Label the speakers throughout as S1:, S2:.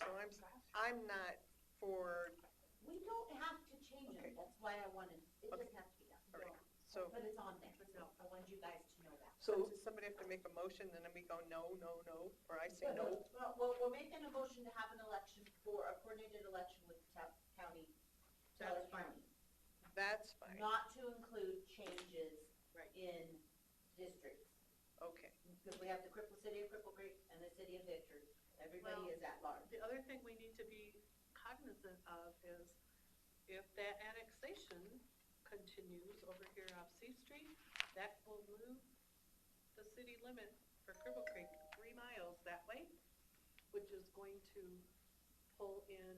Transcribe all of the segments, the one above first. S1: So I'm, I'm not for,
S2: We don't have to change
S1: Okay.
S2: it, that's why I wanted, it
S1: Okay.
S2: doesn't have to be done.
S1: all right,
S2: No.
S1: so,
S2: But it's on there, so I want you guys to know that.
S1: so does somebody have to make a motion, and then we go, no, no, no, or I say no?
S2: Well, we're, we're making a motion to have an election for, a coordinated election with Taft County.
S3: That's
S2: Taft
S3: fine.
S2: County,
S1: That's fine,
S2: Not to include changes
S3: Right.
S2: in districts,
S1: okay.
S2: because we have the Cripple City of Cripple Creek and the City of Victor,
S3: Well,
S2: everybody is at large.
S3: The other thing we need to be cognizant of is if that annexation continues over here off C Street, that will move the city limit for Cripple Creek three miles that way, which is going to pull in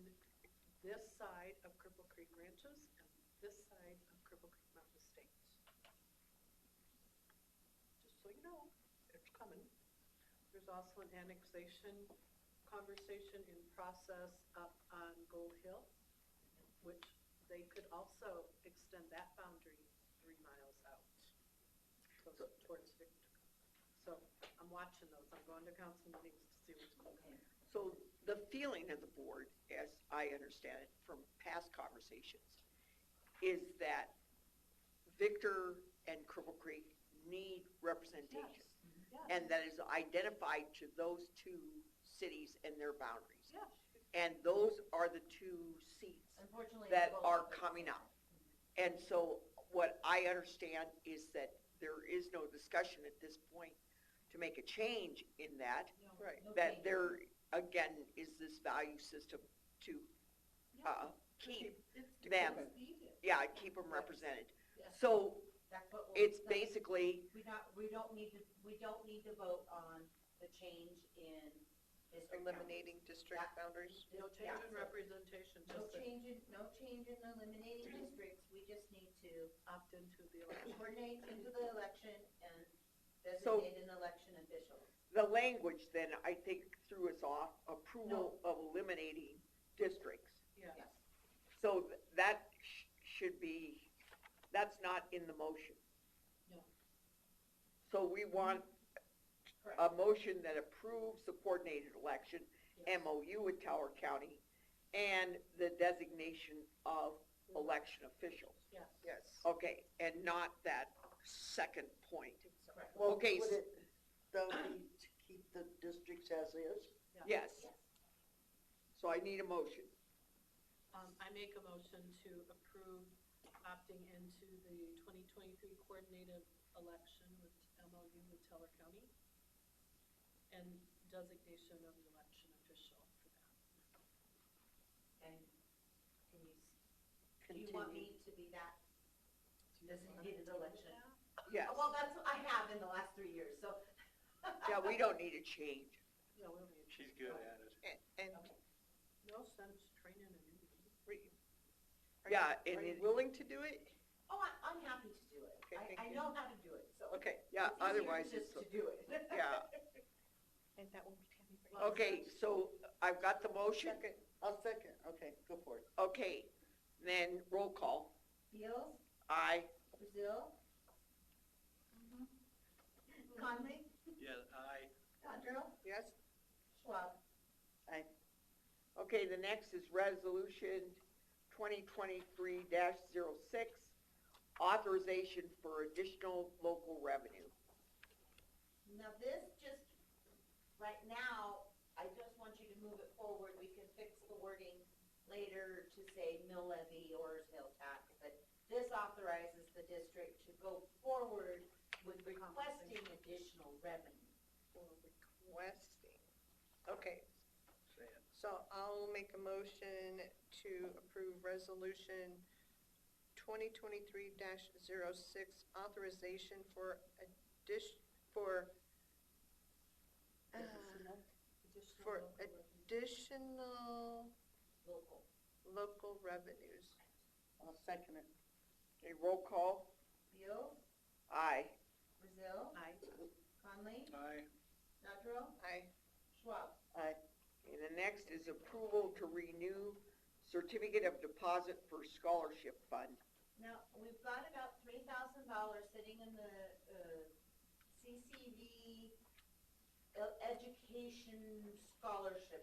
S3: this side of Cripple Creek Ranches and this side of Cripple Creek Mountain Estates. Just so you know, it's coming. There's also an annexation conversation in process up on Gold Hill, which they could also extend that boundary three miles out goes towards Victor. So I'm watching those. I'm going to council meetings to see what's going on.
S4: So the feeling of the board, as I understand it from past conversations, is that Victor and Cripple Creek need representation.
S3: Yes, yes,
S4: And that is identified to those two cities and their boundaries.
S3: yes.
S4: And those are the two seats
S2: Unfortunately.
S4: that
S2: both
S4: are
S2: of us-
S4: coming up. And so what I understand is that there is no discussion at this point to make a change in that.
S2: No,
S1: Right.
S2: no
S4: that
S2: changes.
S4: there, again, is this value system to, uh, keep,
S3: It's-
S4: them.
S3: it's needed.
S4: yeah, keep them represented.
S2: Yes.
S4: So
S2: That's what we'll-
S4: it's
S2: that's-
S4: basically,
S2: We not, we don't need to, we don't need to vote on the change in district boundaries.
S1: Eliminating district boundaries?
S3: No change
S2: Yeah,
S3: in
S2: so
S3: representation,
S2: No
S3: just to
S2: change in, no change in eliminating districts, we just need to
S3: opt into the election.
S2: coordinate into the election and
S4: So-
S2: designate an election official.
S4: the language then, I think, threw us off, approval of eliminating districts.
S3: Yes,
S4: So th- that sh- should be, that's not in the motion.
S2: No.
S4: So we want a motion that approves the coordinated election MOU with Tower County and the designation of election officials.
S3: Yes.
S1: Yes.
S4: Okay, and not that second point.
S2: Correct.
S5: Well,
S4: Okay,
S5: Would
S4: s-
S5: it, though, be to keep the districts as is?
S4: Yes,
S2: Yes.
S4: so I need a motion.
S3: Um, I make a motion to approve opting into the 2023 coordinated election with MOU with Teller County and designation of the election official for that.
S2: And can you, s- do you want me to be that designated election?
S4: Yes,
S2: Well, that's, what I have in the last three years, so.
S4: yeah, we don't need a change.
S3: Yeah, we'll need.
S6: She's good at it.
S1: And, and
S3: No sense training a new one.
S1: re- are you,
S4: Yeah,
S1: are
S4: and
S1: you
S4: it-
S1: willing to do it?
S2: Oh, I, I'm happy to do it.
S1: Okay, thank
S2: I, I
S1: you.
S2: know how to do it, so.
S1: Okay,
S4: Yeah,
S2: It's easier
S4: otherwise
S2: just
S4: it's,
S2: to do it.
S4: yeah.
S1: And that won't be Tammy Brady.
S4: Okay, so I've got the motion.
S1: Second,
S5: I'll second, okay, go for it.
S4: Okay, then roll call.
S2: Beals,
S4: Aye.
S2: Brazil. Conley,
S6: Yeah, I,
S2: Dodrill,
S1: yes,
S2: Schwab.
S4: Okay, the next is resolution twenty twenty-three 6 authorization for additional local revenue.
S2: Now, this just, right now, I just want you to move it forward, we can fix the wording later to say mill levy or sales tax, but this authorizes the district to go forward with requesting additional revenue.
S1: we're requesting. Okay,
S6: say it.
S1: So I'll make a motion to approve resolution twenty twenty-three 6 authorization for addition, for uh,
S4: Ah.
S1: For
S3: Additional local
S1: a-
S3: revenue.
S1: additional
S2: Local.
S1: local revenues.
S5: I'll second it.
S4: Okay, roll call.
S2: Beal,
S4: Aye.
S2: Brazil,
S3: Aye.
S2: Conley,
S6: I,
S2: Dodrill,
S1: I,
S2: Schwab.
S5: Aye,
S4: And the next is approval to renew certificate of deposit for scholarship fund.
S2: Now, we've got about three thousand dollars sitting in the, uh, CCV e- uh, education scholarship